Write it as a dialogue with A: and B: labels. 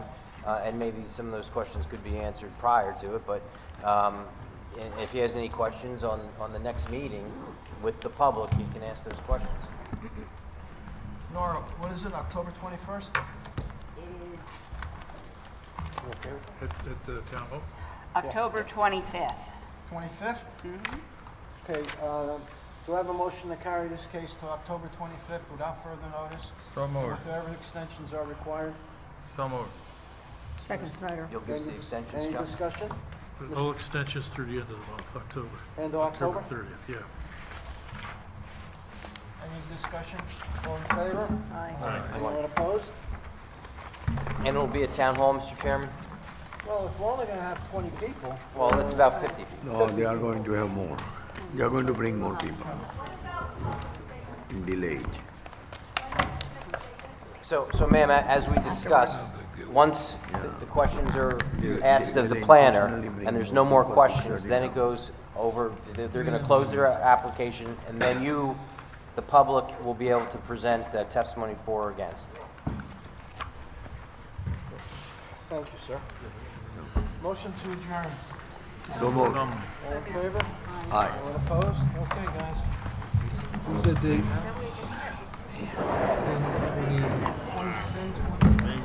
A: uh, and maybe some of those questions could be answered prior to it, but um, i- if he has any questions on, on the next meeting with the public, he can ask those questions.
B: Nora, what is it, October 21st?
C: At, at the town hall?
D: October 25th.
B: 25th? Okay, uh, do I have a motion to carry this case to October 25th without further notice?
C: So moved,
B: Whatever extensions are required?
C: so moved.
E: Second Snyder.
A: You'll give us the
B: Any-
A: extensions,
B: Any
A: Chuck?
B: discussion?
C: All extensions through the end of the month, October.
B: End of October?
C: thirtieth, yeah.
B: Any discussion? All in favor?
C: Aye.
B: Anyone opposed?
A: And it'll be at town hall, Mr. Chairman?
B: Well, if we're only gonna have 20 people,
A: Well, it's about 50 people.
F: No, they are going to have more. They are going to bring more people. Delayed.
A: So, so ma'am, a- as we discussed, once the- the questions are
F: They-
A: asked
F: they-
A: of the
F: they
A: planner,
F: intentionally bring
A: and there's no more
F: more people to
A: questions,
F: shut it
A: then it
F: down.
A: goes over, they're, they're gonna close their application, and then you, the public, will be able to present uh, testimony for or against.
B: thank you, sir. Motion to adjourn.
F: So moved.
B: All in favor?
F: Aye.
B: Anyone opposed? Okay, guys.
G: Who's that date? Ten twenty.